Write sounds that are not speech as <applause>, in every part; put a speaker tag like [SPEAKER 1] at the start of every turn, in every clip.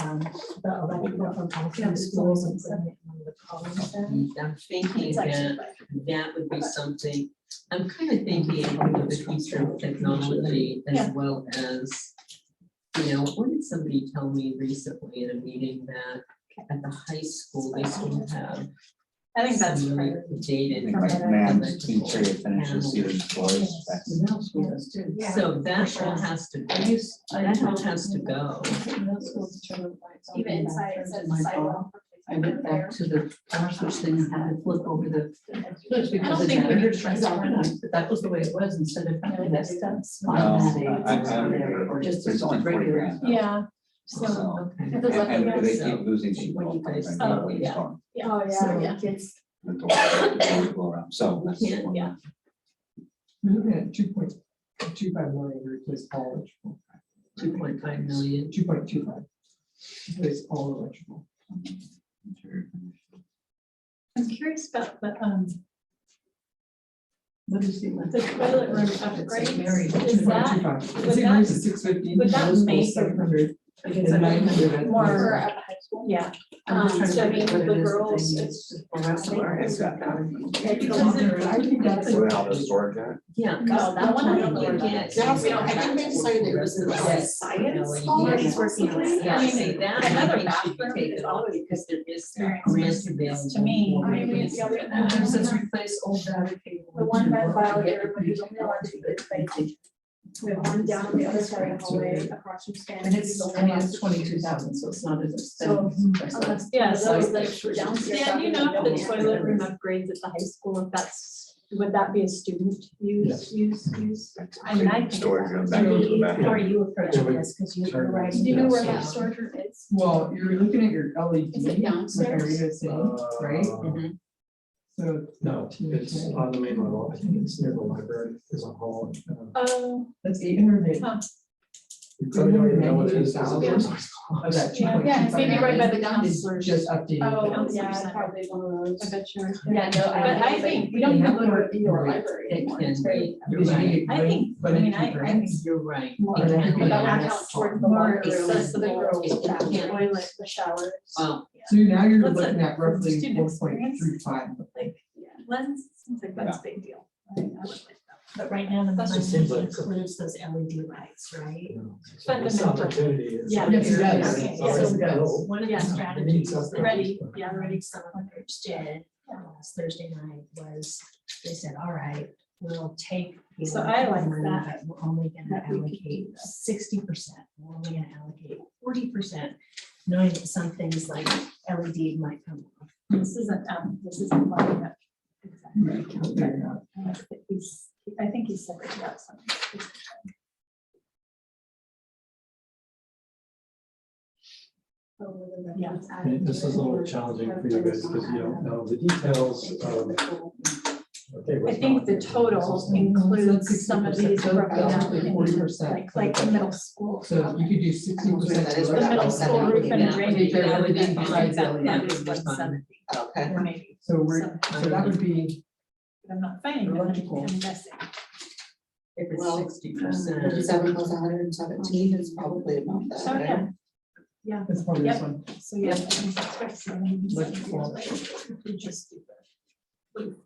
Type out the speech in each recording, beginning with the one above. [SPEAKER 1] um, the elected from Alton schools and putting it on the column there.
[SPEAKER 2] I'm thinking
[SPEAKER 1] It's actually
[SPEAKER 2] that that would be something, I'm kind of thinking of the future of technology as
[SPEAKER 1] Yeah.
[SPEAKER 2] well as, you know, what did somebody tell me recently in a meeting that at the high school, they still have
[SPEAKER 1] I think that's
[SPEAKER 2] some really
[SPEAKER 1] fair.
[SPEAKER 2] dated.
[SPEAKER 1] From
[SPEAKER 3] Like
[SPEAKER 1] that
[SPEAKER 3] Math
[SPEAKER 2] electrical
[SPEAKER 3] teacher finishes
[SPEAKER 2] panels.
[SPEAKER 3] his course, that's
[SPEAKER 2] Middle school is-
[SPEAKER 1] Yeah.
[SPEAKER 2] So that all has to, that all has to go.
[SPEAKER 4] Even inside, it says sidewalk.
[SPEAKER 5] I went <laughs> back to the power switch thing and had to flip over the switch
[SPEAKER 1] I
[SPEAKER 5] because
[SPEAKER 1] don't
[SPEAKER 5] the
[SPEAKER 1] think we
[SPEAKER 5] generator
[SPEAKER 1] can
[SPEAKER 5] turns off and on, but that was the way it was instead of having that stuff.
[SPEAKER 3] No, Um, I- I- I remember.
[SPEAKER 5] Or just
[SPEAKER 3] It's only 40
[SPEAKER 5] regular-
[SPEAKER 3] grand.
[SPEAKER 1] Yeah, Oh, so.
[SPEAKER 3] so.
[SPEAKER 2] Okay.
[SPEAKER 1] It
[SPEAKER 3] And
[SPEAKER 1] does look like
[SPEAKER 3] and they
[SPEAKER 2] that.
[SPEAKER 3] keep losing people.
[SPEAKER 2] When you guys-
[SPEAKER 3] I know
[SPEAKER 2] oh,
[SPEAKER 3] it's
[SPEAKER 2] yeah.
[SPEAKER 3] gone.
[SPEAKER 1] Oh,
[SPEAKER 2] So-
[SPEAKER 1] yeah, it's,
[SPEAKER 3] The door- the door go around. So that's.
[SPEAKER 2] Yeah,
[SPEAKER 3] one.
[SPEAKER 1] yeah.
[SPEAKER 6] We're looking at two point two five million to replace all electrical,
[SPEAKER 2] Two point five million.
[SPEAKER 6] two point two five. Replace all electrical.
[SPEAKER 3] Interior finish.
[SPEAKER 1] I'm curious about the, um,
[SPEAKER 5] What is the?
[SPEAKER 1] the toilet room upgrades. Is that,
[SPEAKER 6] 2.25.
[SPEAKER 1] would
[SPEAKER 6] It's
[SPEAKER 1] that-
[SPEAKER 6] increased to six fifty.
[SPEAKER 1] would that make-
[SPEAKER 6] Seven hundred.
[SPEAKER 1] Because I mean,
[SPEAKER 4] Or
[SPEAKER 6] um,
[SPEAKER 4] at the high school.
[SPEAKER 1] yeah,
[SPEAKER 5] I'm just
[SPEAKER 4] Um,
[SPEAKER 5] trying
[SPEAKER 4] so I
[SPEAKER 5] to think
[SPEAKER 4] mean,
[SPEAKER 5] what it is
[SPEAKER 4] the
[SPEAKER 5] that they
[SPEAKER 4] girls,
[SPEAKER 5] need
[SPEAKER 4] it's-
[SPEAKER 5] to pour out or-
[SPEAKER 3] It's got-
[SPEAKER 1] because it-
[SPEAKER 6] I think that's.
[SPEAKER 3] So how the storage at?
[SPEAKER 2] Yeah.
[SPEAKER 4] No, that one I don't know
[SPEAKER 2] You
[SPEAKER 4] about.
[SPEAKER 2] get-
[SPEAKER 4] That's- we don't- I think they decided it was the
[SPEAKER 2] Yes.
[SPEAKER 4] science
[SPEAKER 2] No,
[SPEAKER 4] hall.
[SPEAKER 2] yeah.
[SPEAKER 5] She's
[SPEAKER 4] working on it.
[SPEAKER 2] Yeah,
[SPEAKER 4] I mean,
[SPEAKER 2] see, that I
[SPEAKER 4] Another
[SPEAKER 2] think should
[SPEAKER 4] bathroom
[SPEAKER 2] be taken
[SPEAKER 4] is
[SPEAKER 2] off
[SPEAKER 4] always
[SPEAKER 2] because there is
[SPEAKER 3] Yeah.
[SPEAKER 2] grants available.
[SPEAKER 1] To me,
[SPEAKER 2] for
[SPEAKER 4] I Oh, mean,
[SPEAKER 2] replacing
[SPEAKER 4] the other-
[SPEAKER 2] that.
[SPEAKER 4] It just says
[SPEAKER 5] replace old battery cable.
[SPEAKER 4] The one red file there, but there's only one to the side. We have one down on the other side of the hallway across from Stan.
[SPEAKER 5] And it's, I mean, it's twenty-two thousand, so it's not as
[SPEAKER 4] So,
[SPEAKER 5] expensive.
[SPEAKER 4] Unless-
[SPEAKER 1] yeah, so
[SPEAKER 4] Those like downstairs.
[SPEAKER 1] Dan, you know, if the
[SPEAKER 4] Yeah.
[SPEAKER 1] toilet room upgrades at the high school, if that's, would that be a student use, use, use? I mean, I think.
[SPEAKER 3] Storage goes
[SPEAKER 1] that was
[SPEAKER 3] back into the
[SPEAKER 1] really-
[SPEAKER 3] bathroom.
[SPEAKER 1] How are you approaching
[SPEAKER 6] Yeah, we-
[SPEAKER 1] this? Because you were
[SPEAKER 6] Sorry.
[SPEAKER 1] right.
[SPEAKER 4] Do you know where
[SPEAKER 2] Yeah.
[SPEAKER 4] that storage room is?
[SPEAKER 6] Well, you're looking at your E LED.
[SPEAKER 4] Is it
[SPEAKER 6] Like I
[SPEAKER 4] downstairs?
[SPEAKER 6] was saying, right?
[SPEAKER 1] Mm-hmm.
[SPEAKER 2] Mhm.
[SPEAKER 6] So.
[SPEAKER 7] uh, No, it's on the main level. I think it's near the library, there's a hall. um,
[SPEAKER 1] Oh,
[SPEAKER 6] That's eight hundred.
[SPEAKER 1] huh.
[SPEAKER 7] You probably don't even know what it is. there's
[SPEAKER 6] <laughs>
[SPEAKER 7] a-
[SPEAKER 6] Of Oh, that two
[SPEAKER 1] Yeah,
[SPEAKER 6] point two
[SPEAKER 4] yeah,
[SPEAKER 6] five.
[SPEAKER 4] it's maybe right by the
[SPEAKER 6] It's
[SPEAKER 4] counselors.
[SPEAKER 6] just updating.
[SPEAKER 4] Oh,
[SPEAKER 1] Counselors
[SPEAKER 4] yeah,
[SPEAKER 1] Center.
[SPEAKER 4] probably one of
[SPEAKER 1] I
[SPEAKER 4] those.
[SPEAKER 1] bet you're.
[SPEAKER 4] Yeah, no, I.
[SPEAKER 1] But I think
[SPEAKER 4] we don't
[SPEAKER 2] we
[SPEAKER 4] have
[SPEAKER 2] have
[SPEAKER 4] one
[SPEAKER 2] one
[SPEAKER 4] in your
[SPEAKER 6] right
[SPEAKER 4] library
[SPEAKER 2] That
[SPEAKER 4] anymore.
[SPEAKER 2] can
[SPEAKER 4] It's very-
[SPEAKER 2] be,
[SPEAKER 6] Because you
[SPEAKER 2] right,
[SPEAKER 6] need
[SPEAKER 1] I think-
[SPEAKER 6] but
[SPEAKER 1] I mean,
[SPEAKER 6] it's
[SPEAKER 1] I- I
[SPEAKER 6] grants.
[SPEAKER 2] you're right.
[SPEAKER 1] More
[SPEAKER 2] It can
[SPEAKER 6] than that.
[SPEAKER 2] be
[SPEAKER 4] But that would
[SPEAKER 2] less.
[SPEAKER 4] count toward the locker room, the
[SPEAKER 1] accessible.
[SPEAKER 4] girls'
[SPEAKER 2] It
[SPEAKER 4] bathroom,
[SPEAKER 2] can't-
[SPEAKER 4] toilet, the showers.
[SPEAKER 2] Well,
[SPEAKER 6] So now you're
[SPEAKER 1] What's
[SPEAKER 6] looking
[SPEAKER 1] that?
[SPEAKER 6] at roughly
[SPEAKER 1] Student
[SPEAKER 6] one point
[SPEAKER 1] experience?
[SPEAKER 6] three five.
[SPEAKER 1] Like, lens, seems like that's a big deal. I I would like that. But right now, the
[SPEAKER 2] That's
[SPEAKER 1] money
[SPEAKER 2] just seems like-
[SPEAKER 1] includes those LED lights, right?
[SPEAKER 7] So This
[SPEAKER 1] Fundamental.
[SPEAKER 7] opportunity is.
[SPEAKER 1] Yeah.
[SPEAKER 6] Yes, it does.
[SPEAKER 1] Okay,
[SPEAKER 7] It's
[SPEAKER 1] yeah.
[SPEAKER 7] always
[SPEAKER 6] Yes, it does.
[SPEAKER 7] low.
[SPEAKER 1] One of the strategies, the ready, yeah, the ready seven groups did uh, last Thursday night was, they said, all right, we'll take. So I like that. We're only gonna allocate sixty percent, we're only gonna allocate forty percent, knowing that some things like LED might come off. This isn't, um, this isn't like that. I think he's- I think he's separated out some. Yeah.
[SPEAKER 7] I mean, This is a little challenging for you guys because you don't know um, the details of. okay,
[SPEAKER 1] I
[SPEAKER 7] what's
[SPEAKER 1] think
[SPEAKER 7] not.
[SPEAKER 1] the total includes some of these programs,
[SPEAKER 6] Forty percent.
[SPEAKER 1] like, like the middle school.
[SPEAKER 6] So if you could do sixty percent.
[SPEAKER 3] That is
[SPEAKER 1] The middle school roof and
[SPEAKER 2] Yeah.
[SPEAKER 1] drainage.
[SPEAKER 2] That would be
[SPEAKER 1] I think
[SPEAKER 2] fine.
[SPEAKER 1] that-
[SPEAKER 2] Yeah.
[SPEAKER 1] That is like seventy,
[SPEAKER 3] Okay.
[SPEAKER 1] or maybe.
[SPEAKER 6] So we're,
[SPEAKER 1] some-
[SPEAKER 6] so that would be,
[SPEAKER 1] but I'm not finding it,
[SPEAKER 6] Electrical.
[SPEAKER 1] I'm guessing.
[SPEAKER 2] if
[SPEAKER 3] Well,
[SPEAKER 2] it's sixty
[SPEAKER 4] um,
[SPEAKER 2] percent.
[SPEAKER 3] Seven plus hundred and seventeen is probably about that.
[SPEAKER 1] So, yeah. Yeah,
[SPEAKER 6] that's probably this one.
[SPEAKER 1] so yeah. I think that's right, so maybe
[SPEAKER 6] Electrical.
[SPEAKER 1] we just do that.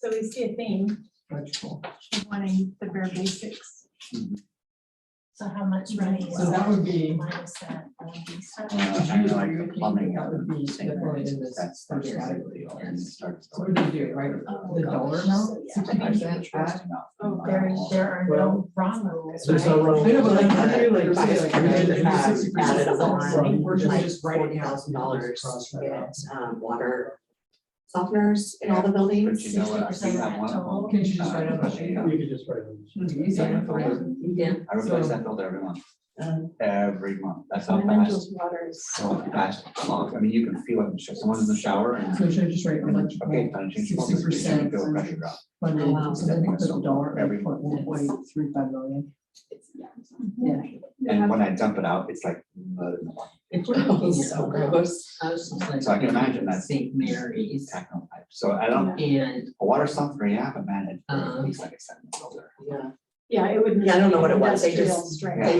[SPEAKER 1] So we see a theme.
[SPEAKER 6] electrical.
[SPEAKER 1] of wanting the bare basics.
[SPEAKER 3] Mhm.
[SPEAKER 1] So how much money?
[SPEAKER 6] So that would be,
[SPEAKER 1] Minus that, E all of these.
[SPEAKER 3] Uh, I know like the plumbing.
[SPEAKER 6] That would be definitely in this
[SPEAKER 3] That's
[SPEAKER 6] first
[SPEAKER 3] basically all it
[SPEAKER 2] Yes.
[SPEAKER 3] starts
[SPEAKER 6] so what do we do, right?
[SPEAKER 1] Oh,
[SPEAKER 6] The
[SPEAKER 1] gosh.
[SPEAKER 6] dollar amount,
[SPEAKER 1] Yeah.
[SPEAKER 6] sixty percent.
[SPEAKER 1] Oh, there, there are no wrong rules.
[SPEAKER 7] There's no
[SPEAKER 1] right?
[SPEAKER 7] wrong.
[SPEAKER 6] I know, but like, I feel like,
[SPEAKER 3] There's
[SPEAKER 6] say, like,
[SPEAKER 3] like-
[SPEAKER 6] we did
[SPEAKER 3] there's
[SPEAKER 6] do
[SPEAKER 3] like-
[SPEAKER 6] 60%,
[SPEAKER 1] added on,
[SPEAKER 6] so We're just,
[SPEAKER 8] like,
[SPEAKER 6] just writing out. some
[SPEAKER 8] $40,000
[SPEAKER 6] costs
[SPEAKER 8] to
[SPEAKER 6] right now.
[SPEAKER 8] get, um, water softeners in all the buildings.
[SPEAKER 3] But you know what, I think
[SPEAKER 1] 60%
[SPEAKER 3] that one of
[SPEAKER 1] rental.
[SPEAKER 3] them.
[SPEAKER 6] Can you just write
[SPEAKER 3] uh,
[SPEAKER 6] on the sheet?
[SPEAKER 7] You could just write on this.
[SPEAKER 6] It's easy,
[SPEAKER 3] Yeah.
[SPEAKER 6] right?
[SPEAKER 2] Yeah,
[SPEAKER 3] I replace that filter every month,
[SPEAKER 8] Um,
[SPEAKER 3] every month, that's how fast, Oh,
[SPEAKER 4] Elementals, waters.
[SPEAKER 3] so fast, long, I mean, you can feel it, in the sh- someone's in the shower and.
[SPEAKER 6] So should I just write electrical?
[SPEAKER 3] Okay, time change, you can
[SPEAKER 6] 60%.
[SPEAKER 3] feel pressure drop.
[SPEAKER 6] funded,
[SPEAKER 8] Wow.
[SPEAKER 6] so I think that's a dollar,
[SPEAKER 3] Every
[SPEAKER 6] eight point one point three five million.
[SPEAKER 4] It's- yeah.
[SPEAKER 3] And when I dump it out, it's like mud in the water,
[SPEAKER 2] if we're looking at
[SPEAKER 8] So
[SPEAKER 6] <laughs>
[SPEAKER 2] overall,
[SPEAKER 8] gross.
[SPEAKER 2] I was just like.
[SPEAKER 3] So I can imagine that.
[SPEAKER 2] St. Mary's
[SPEAKER 3] techno pipe, so I don't,
[SPEAKER 2] and,
[SPEAKER 3] a water softener, yeah, but man, it-
[SPEAKER 2] Uh-huh.
[SPEAKER 3] it's like a seven filter.
[SPEAKER 8] Yeah.
[SPEAKER 4] Yeah, it would.
[SPEAKER 8] Yeah, I don't know what it was. They
[SPEAKER 4] Industrial
[SPEAKER 8] just-
[SPEAKER 4] strength.
[SPEAKER 3] Yeah.